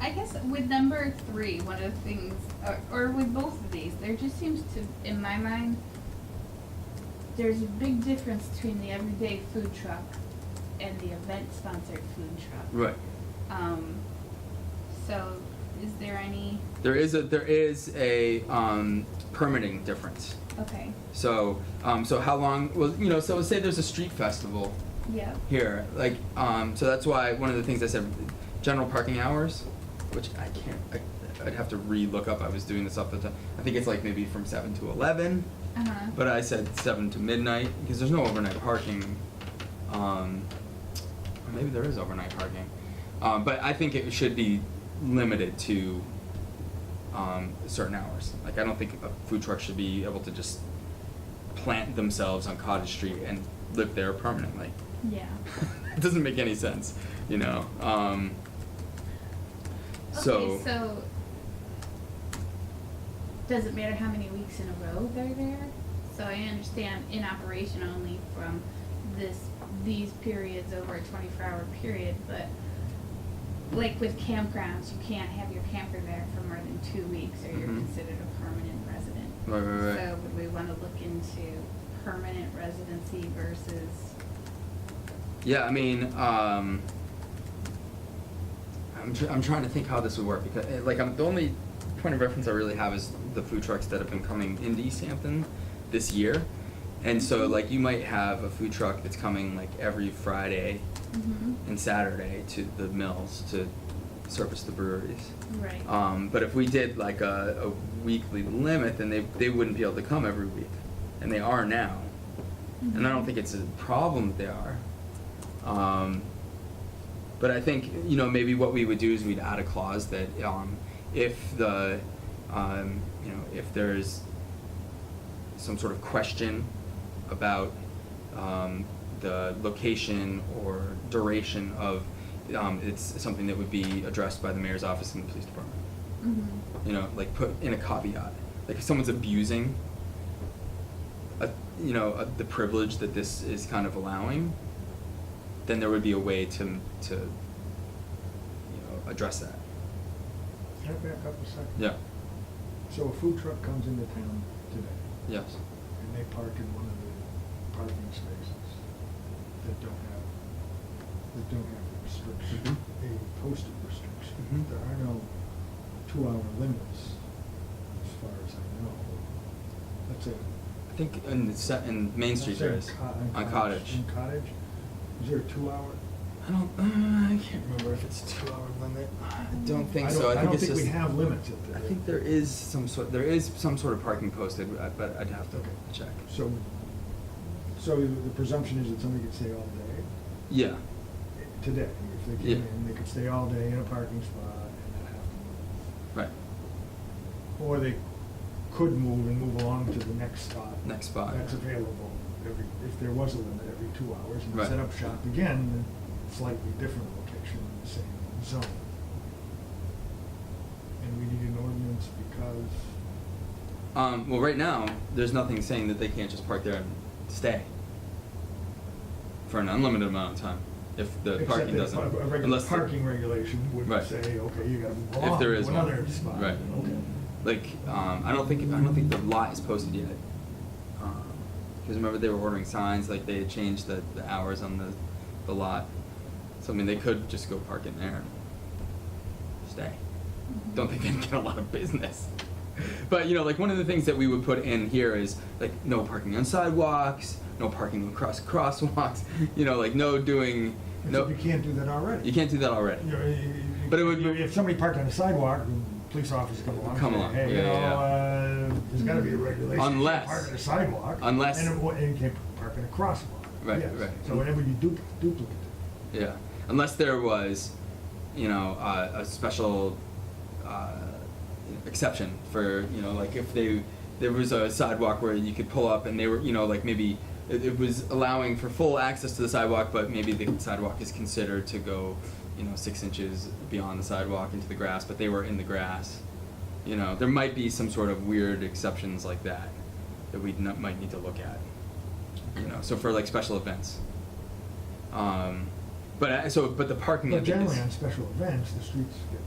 I guess with number three, one of the things, or, or with both of these, there just seems to, in my mind, there's a big difference between the everyday food truck and the event sponsored food truck. Right. Um, so is there any, There is a there is a um, permitting difference. okay, So um, so how long? Well, you know, so say there's a street festival yeah, here, like um, so that's why one of the things I said, general parking hours, which I can't. I, I'd have to re-look up. I was doing this off the top. I think it's like maybe from seven to eleven, uh-huh, but I said seven to midnight because there's no overnight parking. Um, or maybe there is overnight parking, um, but I think it should be limited to um, certain hours. Like I don't think a food truck should be able to just plant themselves on Cottage Street and live there permanently. yeah. it doesn't make any sense, you know. Um, so, Okay, so does it matter how many weeks in a row they're there? So I understand in operation only from this, these periods over a twenty-four hour period, but like with campgrounds, you can't have your camper there for more than two weeks or you're Mhm. considered a permanent resident. right, right, right. So would we wanna look into permanent residency versus, yeah, I mean, um, I'm tr- I'm trying to think how this would work because eh, like I'm the only point of reference I really have is the food trucks that have been coming into East Hampton this year, and so like you might have a food truck that's coming like every Friday mm-hmm, and Saturday to the mills to service the breweries. right, Um, but if we did like a, a weekly limit, then they, they wouldn't be able to come every week, and they are now. And I don't think it's a problem that they are. Um, but I think you know maybe what we would do is we'd add a clause that um, if the um, you know if there's some sort of question about um, the location or duration of um, it's something that would be addressed by the mayor's office and the police department mm-hmm. you know, like put in a caveat. Like if someone's abusing, a, you know, a, the privilege that this is kind of allowing, then there would be a way to to you know address that. Can I back up a second? Yeah. So a food truck comes into town today, Yes. and they park in one of the parking spaces that don't have, that don't have a restriction, Mm-hmm. a posted restriction. Mhm. There are no two-hour limits, as far as I know. That's it. I think in the se- in Main Street there is on Cottage. In Cottage, is there a two-hour? I don't. Uh, I can't remember if it's a two-hour limit. I don't think so. I think it's don't just. think we have limits at the. I think there is some sort. There is some sort of parking posted, uh, but I'd have to Okay. check. So, so the presumption is that somebody could stay all day Yeah. today, if they Yeah. came in, they could stay all day in a parking spot and not have to Right. move. Or they could move and move along to the next spot. Next spot. That's available every, if there was a limit, every two hours, and Right. set up shop again in a slightly different location in the same zone. And we need an ordinance because, Um, well, right now, there's nothing saying that they can't just park there and stay for an unlimited amount of time if the except parking that doesn't. a a regular unless the- parking regulation would Right. say, okay, you gotta move If along there to is one. another spot. Right. Okay. like, um, I don't think I don't think the lot is posted yet. Because remember they were ordering signs, like they had changed the, the hours on the, the lot. So I mean, they could just go park in there and stay. Mm-hmm. Don't think they'd get a lot of business. But you know, like one of the things that we would put in here is like no parking on sidewalks, no parking across crosswalks. You know, like no doing no. Except you can't do that already. You can't do that already. You know, you- you- But it would- you- If somebody parked on the sidewalk, the police officer come along. and Come say, along, Hey, yeah, you know, yeah, uh, there's gotta be a regulation. You can't Unless- Park on the sidewalk. unless- And it wa- and you can't park in a crosswalk. Right, Yes. right. So whenever you duplicate, duplicate. Yeah, unless there was, you know, uh, a special uh, exception for you know, like if they there was a sidewalk where you could pull up and they were you know like maybe it, it was allowing for full access to the sidewalk, but maybe the sidewalk is considered to go, you know, six inches beyond the sidewalk into the grass, but they were in the grass. You know, there might be some sort of weird exceptions like that that we n- might need to look at. You know, so for like special events. Um, but I, so, but the parking. But of it is- generally on special events, the streets get